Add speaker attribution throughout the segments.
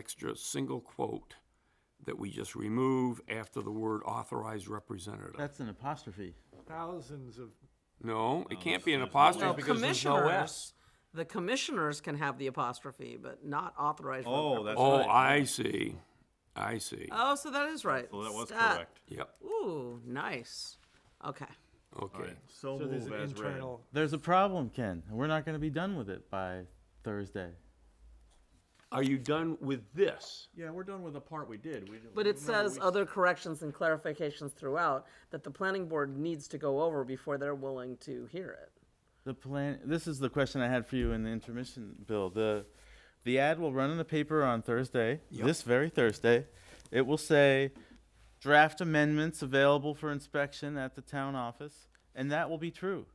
Speaker 1: extra single quote that we just remove after the word authorized representative.
Speaker 2: That's an apostrophe.
Speaker 3: Thousands of,
Speaker 1: No, it can't be an
Speaker 4: Oh, Well,
Speaker 1: apostrophe because there's no S.
Speaker 4: commissioners, the commissioners can have the apostrophe, but not authorized.
Speaker 5: Oh,
Speaker 4: representatives.
Speaker 5: that's
Speaker 1: Oh,
Speaker 5: right.
Speaker 1: I see, I see.
Speaker 4: Oh, so that is right.
Speaker 5: Well, that was
Speaker 4: Stat.
Speaker 5: correct.
Speaker 1: Yep,
Speaker 4: Ooh, nice. Okay.
Speaker 1: okay.
Speaker 5: So
Speaker 3: so there's
Speaker 5: move
Speaker 3: an
Speaker 5: as read.
Speaker 3: internal,
Speaker 2: There's a problem, Ken. and We're not going to be done with it by Thursday.
Speaker 1: Are you done with this?
Speaker 5: Yeah, we're done with the part we did. We,
Speaker 4: But it says other corrections and clarifications throughout that the planning board needs to go over before they're willing to hear it.
Speaker 2: The plan. This is the question I had for you in the intermission, Bill. The the ad will run in the paper on Thursday, this very Thursday. It will say draft amendments available for inspection at the town office, and that will be true.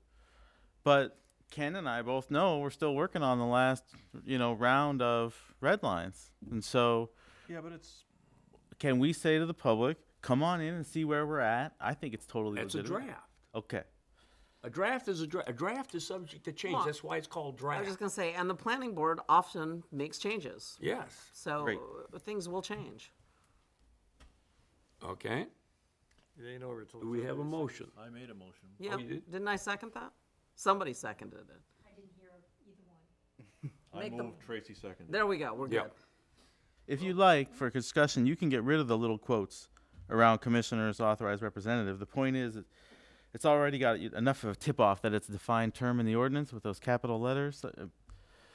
Speaker 2: But Ken and I both know we're still working on the last, you know, round of red lines, and so
Speaker 5: Yeah, but it's
Speaker 2: can we say to the public, come on in and see where we're at? I think it's totally
Speaker 1: That's a
Speaker 2: legitimate.
Speaker 1: draft.
Speaker 2: Okay.
Speaker 1: A draft is a draft. A draft is subject to change.
Speaker 4: Well,
Speaker 1: That's why it's called
Speaker 4: I
Speaker 1: draft.
Speaker 4: was just gonna say, and the planning board often makes changes,
Speaker 1: Yes,
Speaker 4: so
Speaker 2: Great.
Speaker 4: uh, things will change.
Speaker 1: okay.
Speaker 3: it ain't over till.
Speaker 1: Do we have a motion?
Speaker 5: I made a motion.
Speaker 4: Yeah,
Speaker 1: you did?
Speaker 4: didn't I second that? Somebody seconded it.
Speaker 5: I
Speaker 4: Make the-
Speaker 5: moved. Tracy seconded.
Speaker 4: There we go, we're
Speaker 1: Yep.
Speaker 4: good.
Speaker 2: If you like, for discussion, you can get rid of the little quotes around commissioners, authorized representative. The point is, it- it's already got you- enough of a tip off that it's a defined term in the ordinance with those capital letters. Uh,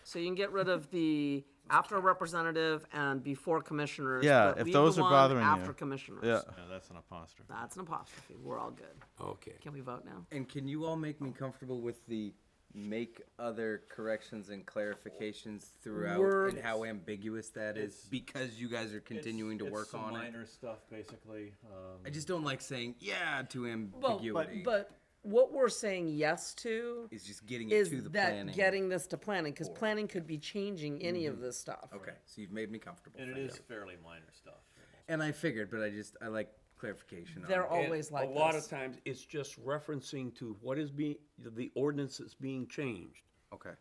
Speaker 4: So you can get rid of the after representative and before commissioners.
Speaker 2: Yeah,
Speaker 4: but
Speaker 2: if
Speaker 4: leave
Speaker 2: those
Speaker 4: the
Speaker 2: are
Speaker 4: one
Speaker 2: bothering you.
Speaker 4: After commissioners.
Speaker 2: Yeah.
Speaker 5: Yeah, that's an apostrophe.
Speaker 4: That's an apostrophe, we're all good.
Speaker 1: Okay.
Speaker 4: Can we vote now?
Speaker 6: And can you all make me comfortable with the make other corrections and clarifications throughout and how ambiguous that is because you guys are continuing to work on it?
Speaker 5: Minor stuff, basically. um,
Speaker 6: I just don't like saying yeah to ambiguity.
Speaker 4: But what we're saying yes to
Speaker 6: is just getting it
Speaker 4: is
Speaker 6: to the
Speaker 4: that
Speaker 6: planning.
Speaker 4: getting this to planning, because planning could be changing any
Speaker 1: Mm-hmm.
Speaker 4: of this stuff.
Speaker 6: okay, so you've made me comfortable.
Speaker 5: and it
Speaker 6: thank
Speaker 5: is
Speaker 6: you.
Speaker 5: fairly minor stuff.
Speaker 6: And I figured, but I just I like clarification. on
Speaker 4: They're
Speaker 6: it.
Speaker 4: always like
Speaker 1: A lot of
Speaker 4: this.
Speaker 1: times, it's just referencing to what is being, the ordinance that's being changed,
Speaker 6: okay.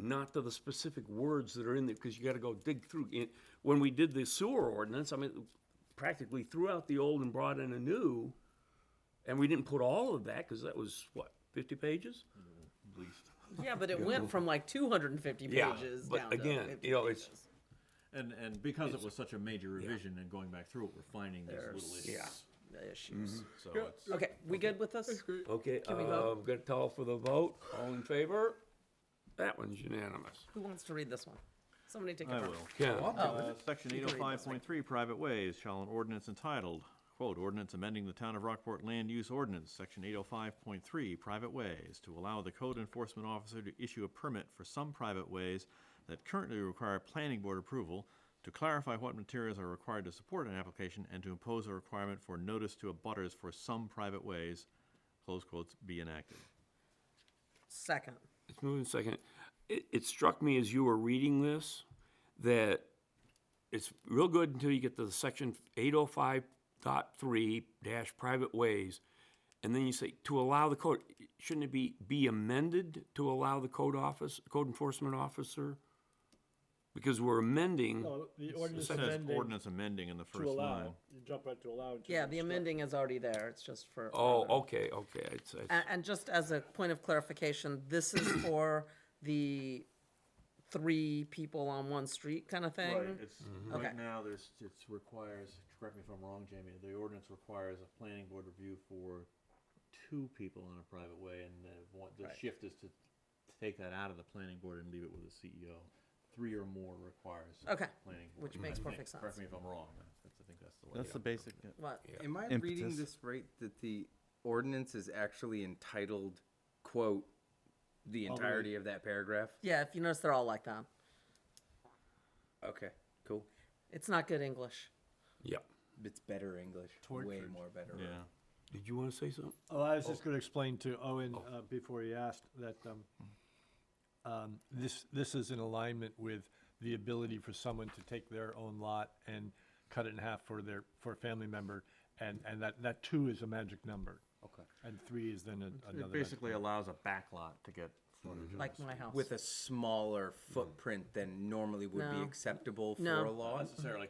Speaker 1: not to the specific words that are in there, because you gotta go dig through. it. When we did the sewer ordinance, I mean, practically threw out the old and brought in a new, and we didn't put all of that, because that was, what, fifty pages?
Speaker 4: Yeah, but it went from like two hundred and fifty
Speaker 1: Yeah,
Speaker 4: pages
Speaker 1: but
Speaker 4: down to
Speaker 1: again,
Speaker 4: 50
Speaker 1: you know, it's-
Speaker 4: pages.
Speaker 5: And and because it was such a major revision and going back through it, we're finding these little issues.
Speaker 4: yeah. The issues.
Speaker 1: Mm-hmm.
Speaker 5: So it's
Speaker 4: Okay, we good with this?
Speaker 1: Okay, uh,
Speaker 4: we vote?
Speaker 1: I'm gonna call for the vote. All in favor? That one's unanimous.
Speaker 4: Who wants to read this one? Somebody take it.
Speaker 5: I
Speaker 4: from
Speaker 5: will.
Speaker 4: me.
Speaker 1: Ken,
Speaker 5: Uh, Section eight oh five point three, private ways, shall an ordinance entitled, quote, ordinance amending the town of Rockport land use ordinance, section eight oh five point three, private ways, to allow the code enforcement officer to issue a permit for some private ways that currently require planning board approval, to clarify what materials are required to support an application, and to impose a requirement for notice to abutters for some private ways, close quotes, be enacted.
Speaker 4: Second.
Speaker 1: It's moving second. It, it struck me as you were reading this that it's real good until you get to the section eight oh five dot three dash private ways. And then you say, to allow the code, shouldn't it be, be amended to allow the code office, code enforcement officer? Because we're amending,
Speaker 7: No, the
Speaker 5: It
Speaker 7: ordinance
Speaker 5: says
Speaker 7: amending
Speaker 5: ordinance amending in the
Speaker 7: to
Speaker 5: first
Speaker 7: allow,
Speaker 5: line.
Speaker 7: you jump right to allow. and just
Speaker 4: Yeah, the
Speaker 7: instruct.
Speaker 4: amending is already there, it's just for.
Speaker 1: oh,
Speaker 4: further-
Speaker 1: okay, okay, it's, it's-
Speaker 4: And, and just as a point of clarification, this is for the three people on one street kind of thing?
Speaker 5: Right, it's,
Speaker 2: Mm-hmm.
Speaker 4: Okay.
Speaker 5: right now, there's, it requires, correct me if I'm wrong, Jamie, the ordinance requires a planning board review for two people in a private way, and the, one- the shift is to take that out of the planning board and leave it with the CEO. Three or more requires. a
Speaker 4: Okay,
Speaker 5: planning board,
Speaker 4: which
Speaker 5: I
Speaker 4: makes
Speaker 5: think.
Speaker 4: perfect
Speaker 5: Correct
Speaker 4: sense.
Speaker 5: me if I'm wrong, but that's, I think that's the way.
Speaker 2: That's the
Speaker 5: base.
Speaker 2: basic.
Speaker 4: What?
Speaker 6: Am I reading
Speaker 2: Impetus.
Speaker 6: this right that the ordinance is actually entitled quote the entirety of that paragraph?
Speaker 4: Yeah, if you notice, they're all like that.
Speaker 6: Okay, cool.
Speaker 4: It's not good English.
Speaker 1: yeah.
Speaker 6: It's better English. Way more better.
Speaker 5: Yeah,
Speaker 1: Did you wanna say something?
Speaker 7: Oh, I was just gonna explain to Owen,
Speaker 5: Oh.
Speaker 7: uh, before he asked, that, um, um, this, this is in alignment with the ability for someone to take their own lot and cut it in half for their, for a family member, and, and that, that two is a magic number. Okay. And three is then a- another.
Speaker 5: it
Speaker 7: magic-
Speaker 5: basically allows a backlot to get
Speaker 2: Mm-hmm.
Speaker 4: like my house.
Speaker 6: with a smaller footprint than normally would be
Speaker 4: No.
Speaker 6: acceptable for
Speaker 4: No.
Speaker 6: a law.
Speaker 5: Necessarily